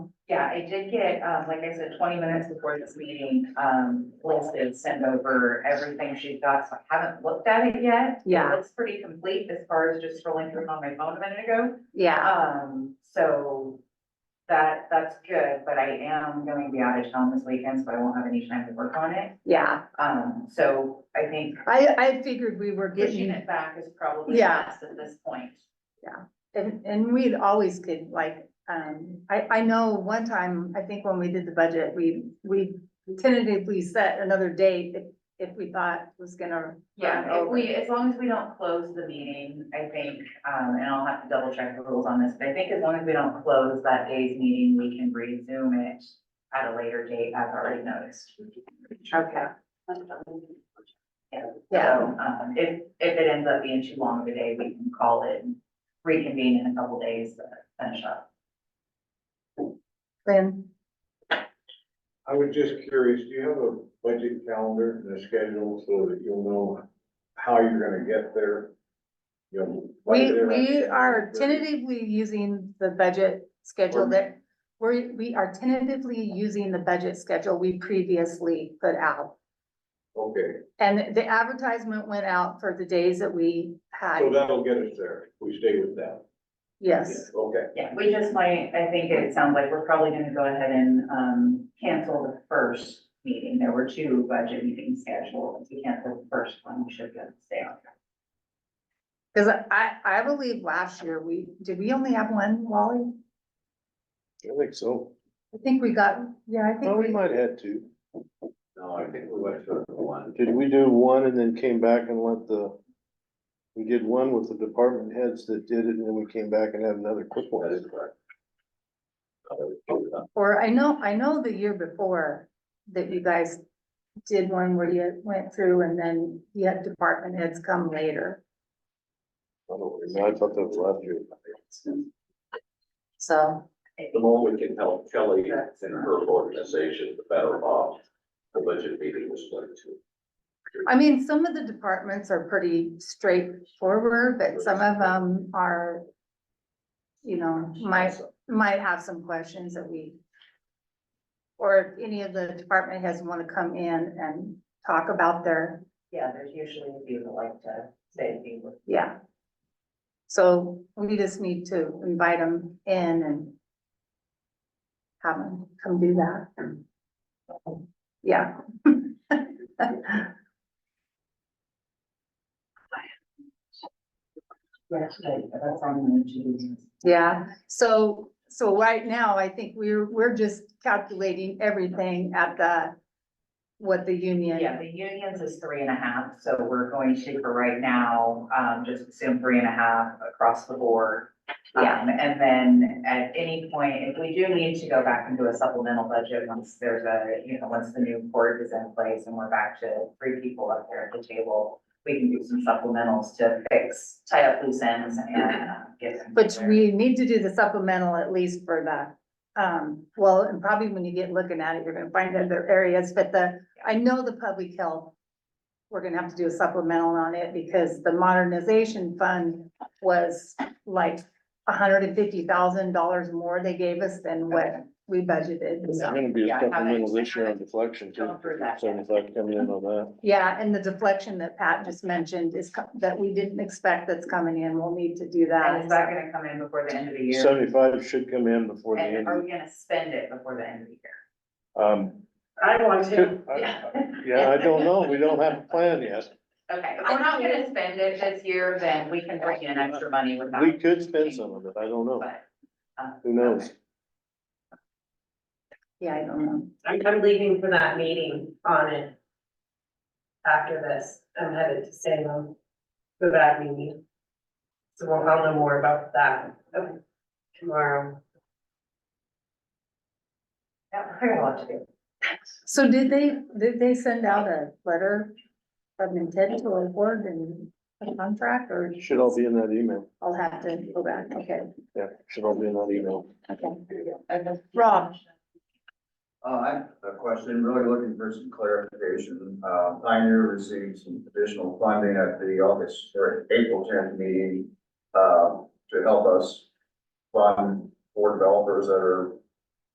yeah, I did get, um, like I said, twenty minutes before this meeting, um, Liz did send over everything she got, so I haven't looked at it yet. Yeah. It looks pretty complete as far as just scrolling through on my phone a minute ago. Yeah, Um, so that, that's good, but I am going to be out of town this weekend, so I won't have any time to work on it. yeah. Um, so I think I, I figured we were pushing getting, it back is probably Yeah. best at this point. and, and we always could like, um, I, I know one time, I think when we did the budget, we, we tentatively set another date if, if we thought was gonna. run Yeah, if over. we, as long as we don't close the meeting, I think, um, and I'll have to double check the rules on this, but I think as long as we don't close that day's meeting, we can resume it at a later date, as already noticed. Okay, Yeah. yeah, So, um, if, if it ends up being too long of a day, we can call it and reconvene in a couple days, to finish up. then, I was just curious, do you have a budget calendar and a schedule so that you'll know how you're gonna get there? You know, right we, there, right we there. are tentatively using the budget schedule that, we're, we are tentatively using the budget schedule we previously put out. Okay, And the advertisement went out for the days that we so had, that'll get us there, if we stay with that. yes. Okay, Yeah, we just might, I think it sounds like we're probably gonna go ahead and, um, cancel the first meeting. There were two budget meetings scheduled. If we cancel the first one, we should be able to stay on. Cause I, I believe last year we, did we only have one, Wally? I think so. I think we got, yeah, I Well, think we we, might have to. no, I think we went to the one. Did we do one and then came back and let the, we did one with the department heads that did it and then we came back and had another quick That is one. correct. or I know, I know the year before that you guys did one where you went through and then you had department heads come later. I don't know, I thought that was last year. So, The more we can help Kelly and her organization, the better off the budget meeting is going to. I mean, some of the departments are pretty straightforward, but some of them are, you know, might, might have some questions that we, or if any of the department heads want to come in and talk about their Yeah, there's usually a few that like to say a few. words. Yeah. So we just need to invite them in and have them come do that. Yeah. Yes, right, but that's on the to-do list. Yeah, so, so right now, I think we're, we're just calculating everything at the, what the Yeah, union, the unions is three and a half, so we're going to, for right now, um, just assume three and a half across the board. Yeah. Um, and then at any point, if we do need to go back and do a supplemental budget, once there's a, you know, once the new board is in place and we're back to three people up there at the table, we can do some supplementals to fix, tie up loose ends and uh, get them. but we need to do the supplemental at least for the, um, well, and probably when you get looking at it, you're gonna find other areas, but the, I know the public health, we're gonna have to do a supplemental on it because the modernization fund was like hundred and fifty thousand dollars more they gave us than what we budgeted. It's So, gonna be Yeah, I a haven't- supplemental this year on deflection too. Don't prove that. So if I come in on that, yeah, and the deflection that Pat just mentioned is co- that we didn't expect that's coming in. We'll need to do And is that that. gonna come in before the end of the year? seventy-five should come in before the And end. are of- we gonna spend it before the end of the year? Um, I want to, could- I- Yeah. yeah, I don't know. We don't have a plan yet. Okay, if we're not gonna spend it this year, then we can bring in extra money without. We could spend some of it. I don't know. But, uh, Who knows? Yeah, I don't know. I'm, I'm leaving for that meeting on it. After this, I'm headed to Salem for that meeting. So we'll, I'll know more about that okay, tomorrow. Yeah, I got a lot to do. So did they, did they send out a letter of intent to award and a contract or? Should all be in that email. I'll have to go back. Okay, Yeah, should all be in that email. okay. Okay. Rob. Uh, I have a question, really looking for some clarification. Uh, Pioneer received some additional funding at the August or April tenth meeting, uh, to help us fund four developers that are